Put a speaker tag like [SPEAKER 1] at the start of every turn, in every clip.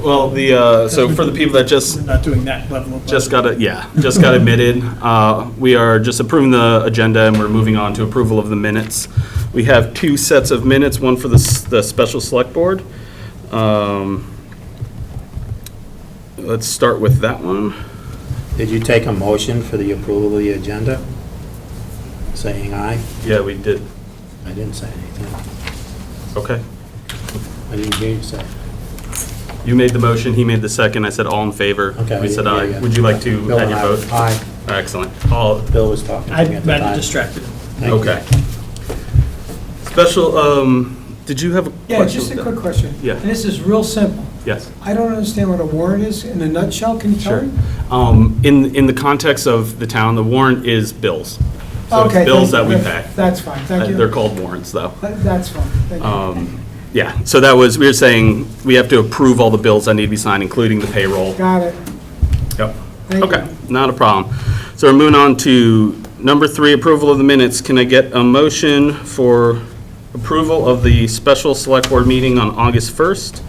[SPEAKER 1] Well, the, uh, so for the people that just
[SPEAKER 2] We're not doing that level of.
[SPEAKER 1] Just got, a- yeah, just got admitted. Uh, We are just approving the agenda, and we're moving on to approval of the minutes. We have two sets of minutes, one for the, s- the special select board. Um, Let's start with that one.
[SPEAKER 3] Did you take a motion for the approval of the agenda? Saying aye?
[SPEAKER 1] Yeah, we did.
[SPEAKER 3] I didn't say anything.
[SPEAKER 1] Okay.
[SPEAKER 3] I didn't hear you say.
[SPEAKER 1] You made the motion, he made the second. I said all in favor.
[SPEAKER 3] Okay.
[SPEAKER 1] We said
[SPEAKER 3] yeah,
[SPEAKER 1] aye.
[SPEAKER 3] yeah.
[SPEAKER 1] Would you like to
[SPEAKER 3] Bill
[SPEAKER 1] add
[SPEAKER 3] and
[SPEAKER 1] your
[SPEAKER 3] I were-
[SPEAKER 1] vote?
[SPEAKER 3] Aye.
[SPEAKER 1] Excellent. All,
[SPEAKER 3] Bill was talking.
[SPEAKER 2] I
[SPEAKER 3] to me at the
[SPEAKER 2] got
[SPEAKER 3] time.
[SPEAKER 2] distracted.
[SPEAKER 3] Thank you.
[SPEAKER 1] okay. Special, um, did you have a question?
[SPEAKER 4] Yeah, just a quick question.
[SPEAKER 1] Yeah.
[SPEAKER 4] And this is real simple.
[SPEAKER 1] Yes.
[SPEAKER 4] I don't understand what a warrant is in a nutshell, can you tell
[SPEAKER 1] Sure.
[SPEAKER 4] me?
[SPEAKER 1] Um, In, in the context of the town, the warrant is bills. So it's
[SPEAKER 4] Okay,
[SPEAKER 1] bills that
[SPEAKER 4] thank-
[SPEAKER 1] we pay.
[SPEAKER 4] That's fine,
[SPEAKER 1] Uh,
[SPEAKER 4] thank you.
[SPEAKER 1] They're called warrants, though.
[SPEAKER 4] That- That's fine, thank you.
[SPEAKER 1] Um, Yeah, so that was, we were saying, we have to approve all the bills that need to be signed, including the payroll.
[SPEAKER 4] Got it.
[SPEAKER 1] Yep.
[SPEAKER 4] Thank
[SPEAKER 1] Okay,
[SPEAKER 4] you.
[SPEAKER 1] not a problem. So we're moving on to number three, approval of the minutes. Can I get a motion for approval of the special select board meeting on August 1st?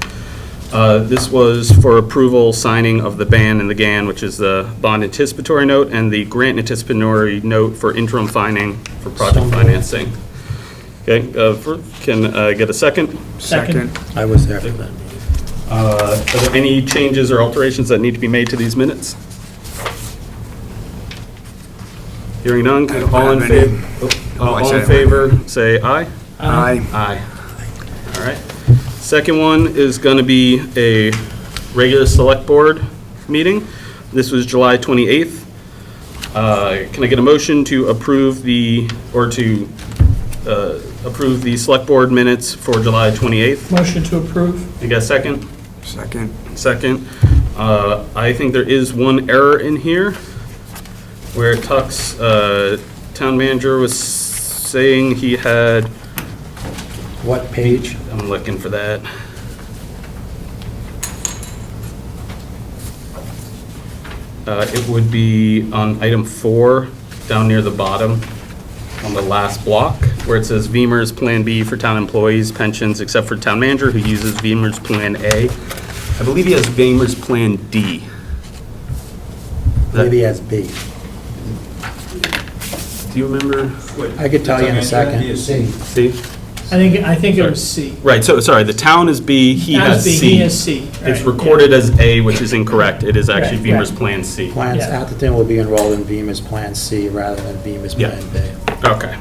[SPEAKER 1] Uh, This was for approval, signing of the ban and the GAN, which is the bond anticipatory note and the grant anticipatory note for interim finding for
[SPEAKER 3] So
[SPEAKER 1] project
[SPEAKER 3] moved.
[SPEAKER 1] financing. Okay, uh, for- can I get a second?
[SPEAKER 2] Second.
[SPEAKER 3] I was there for that meeting.
[SPEAKER 1] Uh, Are there any changes or alterations that need to be made to these minutes? Hearing none, all in
[SPEAKER 5] have any. Oh,
[SPEAKER 1] favor,
[SPEAKER 5] I
[SPEAKER 1] all
[SPEAKER 5] said
[SPEAKER 1] in
[SPEAKER 5] it.
[SPEAKER 1] favor, say aye.
[SPEAKER 5] Aye.
[SPEAKER 1] Aye. All right. Second one is going to be a regular select board meeting. This was July 28th. Uh, Can I get a motion to approve the, or to uh, approve the select board minutes for July 28th?
[SPEAKER 2] Motion to approve.
[SPEAKER 1] You got a second?
[SPEAKER 5] Second.
[SPEAKER 1] Second, uh, I think there is one error in here where it talks, uh, town manager was saying he had,
[SPEAKER 3] What page?
[SPEAKER 1] I'm looking for that. Uh, It would be on item four, down near the bottom, on the last block, where it says Beamer's Plan B for town employees, pensions, except for town manager who uses Beamer's Plan A. I believe he has Beamer's Plan D. That-
[SPEAKER 3] Maybe as B.
[SPEAKER 1] Do you remember?
[SPEAKER 3] I could tell you in a second.
[SPEAKER 1] C?
[SPEAKER 2] I think, I think it was C.
[SPEAKER 1] Right, so, sorry, the town is B, he
[SPEAKER 2] That
[SPEAKER 1] has
[SPEAKER 2] was
[SPEAKER 1] C.
[SPEAKER 2] B, He has C.
[SPEAKER 1] It's
[SPEAKER 2] right,
[SPEAKER 1] recorded as A, which is incorrect. It is actually
[SPEAKER 2] Right,
[SPEAKER 1] Beamer's
[SPEAKER 2] right.
[SPEAKER 1] Plan C.
[SPEAKER 3] Plans,
[SPEAKER 2] Yeah.
[SPEAKER 3] Atherton will be enrolled in Bemis Plan C rather than Bemis
[SPEAKER 1] Yeah.
[SPEAKER 3] Plan B.
[SPEAKER 1] Okay.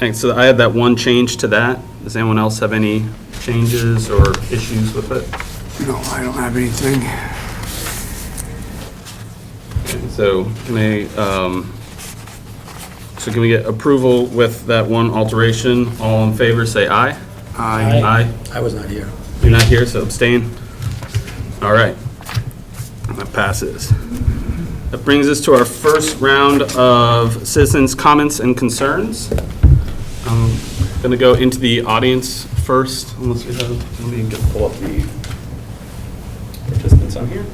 [SPEAKER 1] Thanks. So I had that one change to that. Does anyone else have any changes or issues with it?
[SPEAKER 5] No, I don't have anything.
[SPEAKER 1] Okay, So can I, um, so can we get approval with that one alteration? All in favor, say aye.
[SPEAKER 5] Aye.
[SPEAKER 1] Aye.
[SPEAKER 3] I was not here.
[SPEAKER 1] You're not here, so abstain. All right. That passes. That brings us to our first round of citizens' comments and concerns. I'm going to go into the audience first, unless we have, let me just pull up the participants on here.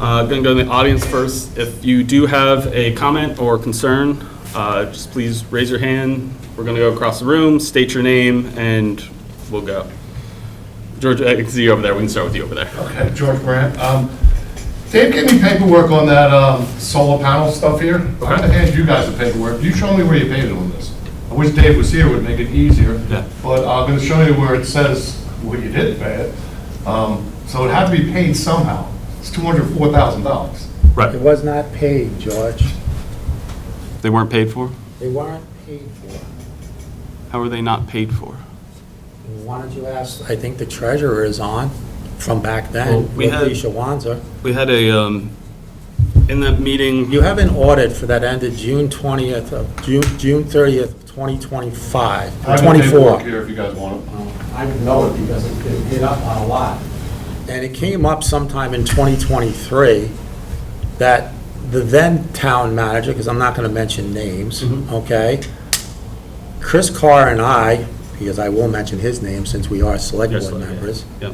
[SPEAKER 1] Uh, Going to go to the audience first. If you do have a comment or concern, uh, just please raise your hand. We're going to go across the room, state your name, and we'll go. George, I can see you over there. We can start with you over there.
[SPEAKER 6] Okay, George Brandt. Um, Dave gave me paperwork on that um, solar panel stuff here. I'm gonna hand you guys the paperwork. You show me where you paid it on this. I wish Dave was here, it would make it easier.
[SPEAKER 1] Yeah.
[SPEAKER 6] But I'm gonna show you where it says what you did pay it. Um, So it had to be paid somehow. It's $204,000.
[SPEAKER 3] It
[SPEAKER 1] Right.
[SPEAKER 3] was not paid, George.
[SPEAKER 1] They weren't paid for?
[SPEAKER 3] They weren't paid for.
[SPEAKER 1] How were they not paid for?
[SPEAKER 3] Why don't you ask, I think the treasurer is on from back
[SPEAKER 1] Well,
[SPEAKER 3] then,
[SPEAKER 1] we
[SPEAKER 3] with
[SPEAKER 1] had-
[SPEAKER 3] Alicia Wanzer.
[SPEAKER 1] We had a, um, in that meeting,
[SPEAKER 3] You have an audit for that ended June 20th of, June, June 30th, 2025,
[SPEAKER 6] I have the paperwork
[SPEAKER 3] 24.
[SPEAKER 6] Here, if you guys want it.
[SPEAKER 3] I know it because it it hit up on a lot. And it came up sometime in 2023 that the then town manager, because I'm not going to mention names, okay? Chris Carr and I, because I will mention his name since we are select
[SPEAKER 1] Yes,
[SPEAKER 3] board
[SPEAKER 1] yeah.
[SPEAKER 3] members,
[SPEAKER 1] yeah,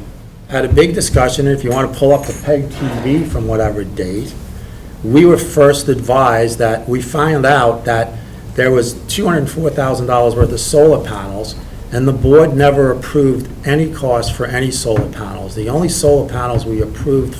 [SPEAKER 3] had a big discussion, and if you want to pull up the PEG TV from whatever date, we were first advised that, we found out that there was $204,000 worth of solar panels, and the board never approved any cost for any solar panels. The only solar panels we approved